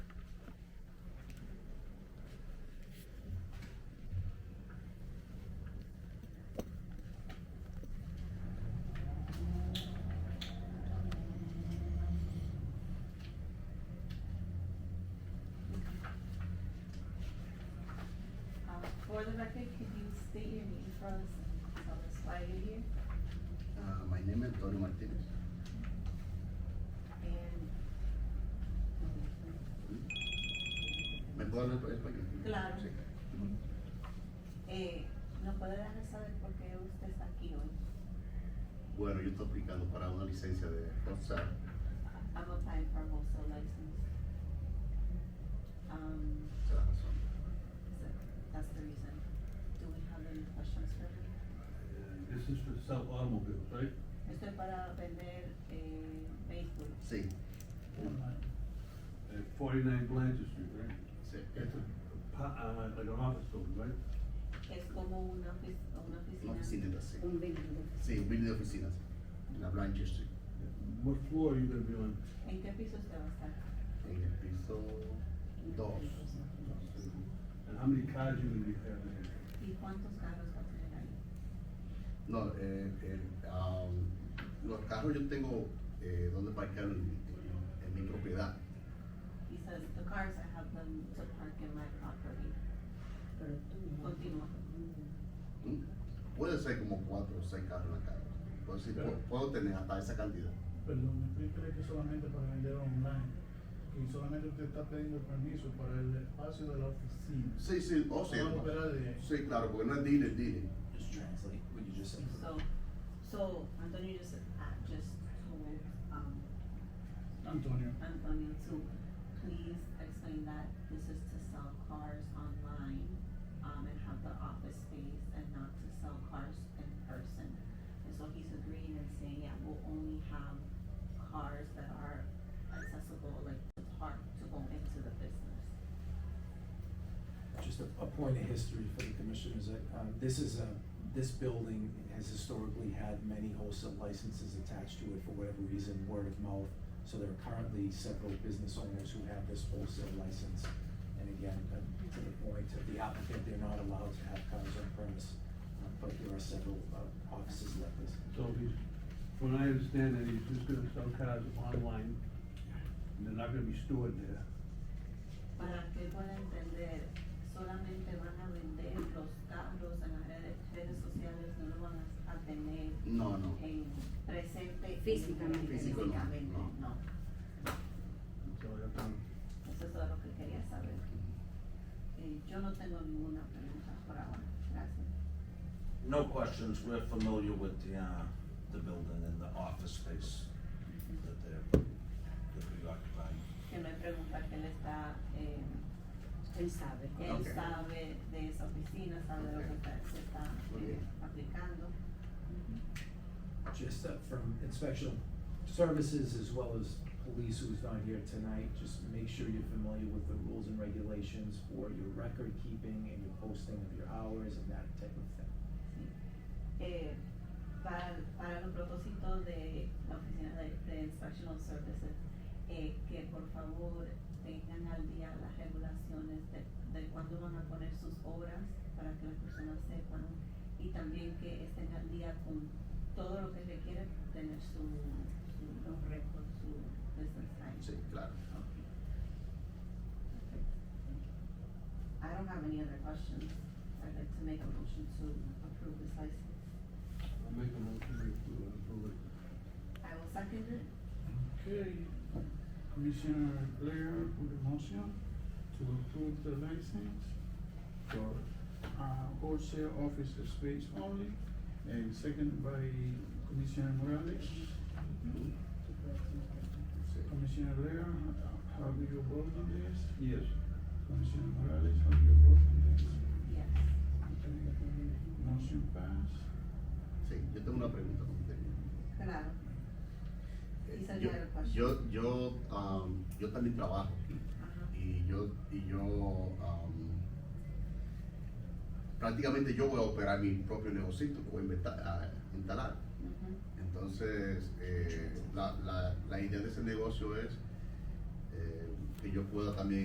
Um, For the record, could you state your name for us, tell us why you're here, Uh, my name is Antonio Martinez. and. ¿Me puedo hablar en español? Claro. Sí. Eh, ¿nos puede dejar saber por qué usted está aquí hoy? Bueno, yo estoy aplicando para una licencia de WhatsApp. I'm applying for a wholesale license. Um, Esa es la razón. so that's the reason. Do we have any questions for him? This is for sell automobiles, right? Esto es para vender, eh, vehículos. Sí, At forty-nine Blanchard Street, right? sí. It's a, pa- uh, like an office building, right? Es como una ofic- una Una oficina. oficina, sí. Un vehículo. Sí, un building de oficinas. En la Blanchard Street. What floor are you gonna be on? ¿En qué piso usted va a estar? En el piso dos. And how many cars you gonna be having here? ¿Y cuántos carros va a tener ahí? No, eh, el, am, los carros yo tengo eh, donde parquear en, en- en mi propiedad. He says, the cars, I have them to park in my property. Pero tú no. Continúa. ¿Mm? Puede ser como cuatro o seis carros en la calle. Puedo, decir, Claro. pu- puedo tener hasta esa cantidad. Perdón, ¿usted cree que solamente para vender online? Que solamente usted está pidiendo permiso para el espacio de la oficina. Sí, sí, o sea, Vamos a operar de- sí, claro, porque no es dealer, dealer. Just translate what you just said. So, so Antonio just, uh, just told, um, Antonio. Antonio to please explain that this is to sell cars online, um, and have the office space and not to sell cars in person. And so he's agreeing and saying, yeah, we'll only have cars that are accessible, like to park, to go into the business. Just a, a point of history for the commissioners, uh, um, this is a, this building has historically had many wholesale licenses attached to it for whatever reason, word of mouth. So there are currently several business owners who have this wholesale license. And again, uh, to the point of the applicant, they're not allowed to have cars on premise, uh, but there are several, uh, offices like this. So he's, when I understand it, he's just gonna sell cars online, and they're not gonna be stored there. para que pueda entender, solamente van a vender los carros en las redes, redes sociales, no lo van a- a tener No, no. en presente Físicamente. Físico no, físicamente, no. no. So I have to Eso es todo lo que quería saber. Eh, yo no tengo ninguna pregunta por ahora, gracias. No questions, we're familiar with the, uh, the building and the office space that they're, that we occupy. Que me pregunta que él está, eh, Él sabe. él Ok. sabe de esa oficina, sabe de lo que está- se está eh, Ok. aplicando. just uh, from inspection services as well as police who's not here tonight, just make sure you're familiar with the rules and regulations for your record keeping and your posting of your hours and that type of thing. eh, para, para los propósitos de la Oficina de, de Instructional Services, eh, que por favor tengan al día las regulaciones de, de cuándo van a poner sus obras para que las personas sepan y también que estén al día con todo lo que requiere tener su, su los récords, su business time. Sí, claro. Okay. Perfect. I don't have any other questions. I'd like to make a motion to approve this license. I'll make a motion to approve- approve uh, it. I will second it. Okay, Commissioner Blair put a motion to approve the license for, uh, wholesale office space only, and second by Commissioner Morales. Commissioner Blair, how- how do you vote on this? Yes. Commissioner Morales, how do you vote on this? Yes. Okay, Motion passed. Sí, yo tengo una pregunta con usted. Claro. Y Eh, salió de la Yo, yo, yo, am, yo también trabajo Ajá. y yo, y yo am, prácticamente yo voy a operar mi propio negocio que voy a inventa- a instalar. Ujú. Entonces, eh, la, la, la idea de ese negocio es eh, que yo pueda también